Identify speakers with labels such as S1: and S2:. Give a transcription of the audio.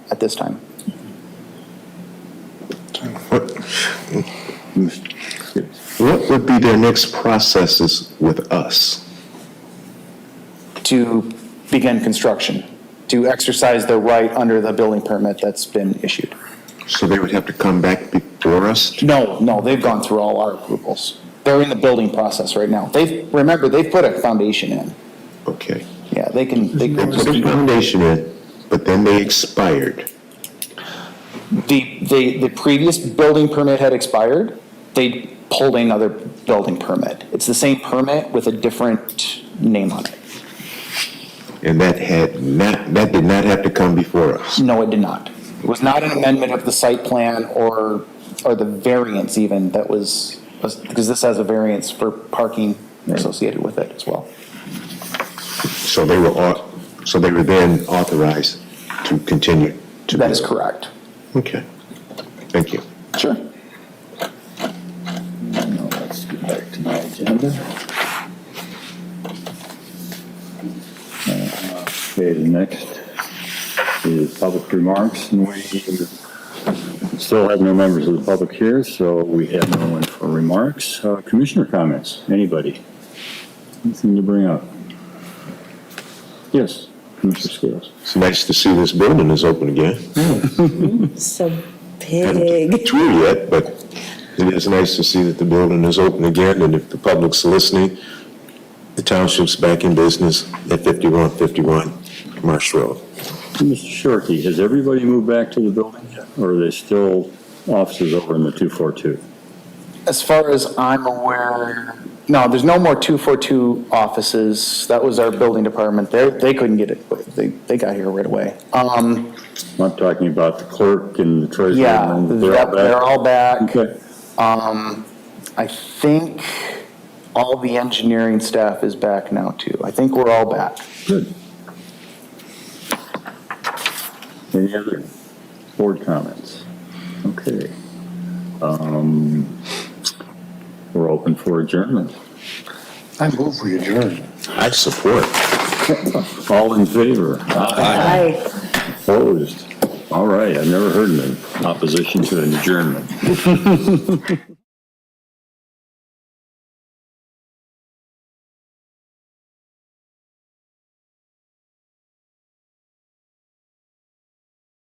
S1: this time.
S2: What would be their next processes with us?
S1: to begin construction, to exercise their right under the building permit that's been issued.
S2: So they would have to come back before us?
S1: No, no, they've gone through all our approvals. They're in the building process right now. They've, remember, they've put a foundation in.
S2: Okay.
S1: Yeah, they can, they
S2: They
S1: can,
S2: put a foundation in, but then they expired.
S1: the, the, the previous building permit had expired. They pulled another building permit. It's the same permit with a different name on it.
S2: And that had not, that did not have to come before us.
S1: No, it did not. It was not an amendment of the site plan or, or the variance even that was, was- because this has a variance for parking associated with it as well.
S2: So they were, au- so they were then authorized to continue to.
S1: That is
S2: build.
S1: correct.
S2: Okay. Thank you.
S1: Sure.
S3: Now let's get back to my agenda. Uh, Okay, the next is public remarks, and we still have no members of the public here, so we have no one for remarks. Uh, Commissioner comments, anybody? Anything to bring up? Yes, Commissioner Scales.
S2: It's nice to see this building is open again.
S4: So
S2: Haven't
S4: big.
S2: Through yet, but it is nice to see that the building is open again, and if the public's listening, the township's back in business at 5151 Marsh Road.
S3: Mr. Shorkey, has everybody moved back to the building, or are they still offices over in the 242?
S1: As far as I'm aware, no, there's no more 242 offices. That was our building department. They, they couldn't get it. They, they got here right away. Um,
S3: I'm talking about the clerk and the treasurer.
S1: yeah,
S3: and they're all
S1: that- they're
S3: back.
S1: all back.
S3: Okay,
S1: Um, I think all the engineering staff is back now too. I think we're all back.
S3: good. Any other board comments? Okay. Um, We're open for adjournment.
S5: I move for adjourn.
S2: I support.
S3: All in favor? Aye.
S4: Hi.
S3: Opposed? All right, I've never heard of an opposition to an adjournment.